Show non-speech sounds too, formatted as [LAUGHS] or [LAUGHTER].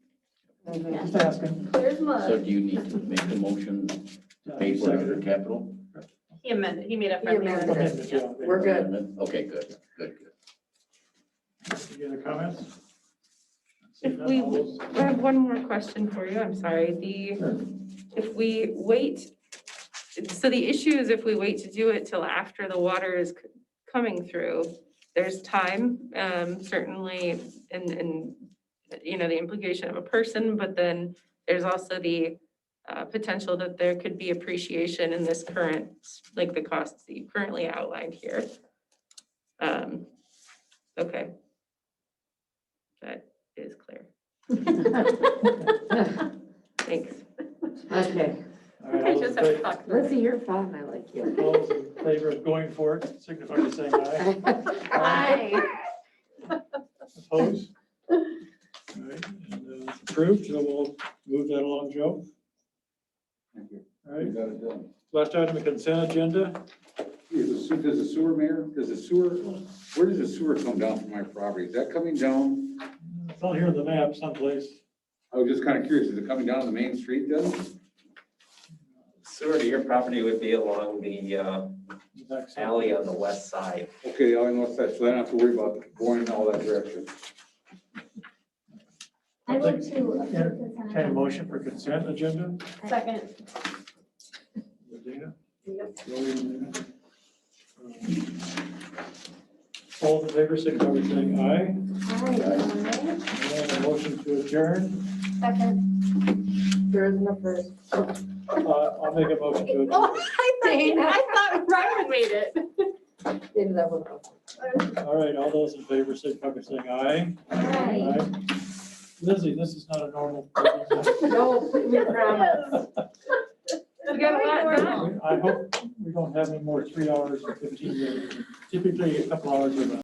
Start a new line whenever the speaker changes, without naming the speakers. Mm-hmm.
Just asking.
There's
So
mud.
do you need to make the motion to pay for it under capital?
He amended, he made a friendly
amended it.
amendment, yeah.
We're good.
Okay, good, good, good.
Any other comments?
If we- I have one more question for you, I'm sorry.
Sure.
The, if we wait, so the issue is if we wait to do it till after the water is c- coming through, there's time, um, certainly, and, and, you know, the implication of a person, but then there's also the uh, potential that there could be appreciation in this current, like the costs that you currently outlined here. Um, Okay. That is clear. Thanks.
[LAUGHS] Okay,
All right, all those in fa-
Lizzie, you're fine, I like you.
[LAUGHS] all those in favor of going for it, signify by saying aye.
Hi.
Opposed? All right, and, uh, it's Approved, so we'll move that along, Joe. All right,
got it done.
last item, the consent agenda.
Is the sewer, does the sewer, Mayor, does the sewer, where does the sewer come down from my property? Is that coming down?
It's not here on the map someplace.
I was just kind of curious, is it coming down the main street then?
Sewer to your property would be along the uh,
The back side.
alley on the west side.
Okay, I know that, so I don't have to worry about going in all that direction.
I would too. approve
Yeah.
consent.
Entertain a motion for consent agenda.
Second.
Dana? William, Dana. All in favor, signify by saying aye.
Hi.
And a motion to adjourn.
Second.
There isn't a first.
Uh, I'll make a motion to adjourn.
Oh, I thought, I thought Ryan made it.
Maybe that one. [LAUGHS]
All right, all those in favor, signify by saying aye.
Hi.
Lizzie, this is not a normal.
No, we promise.
You got a lot done.
I hope we don't have any more three hours and fifteen minutes. Typically, a couple hours or less.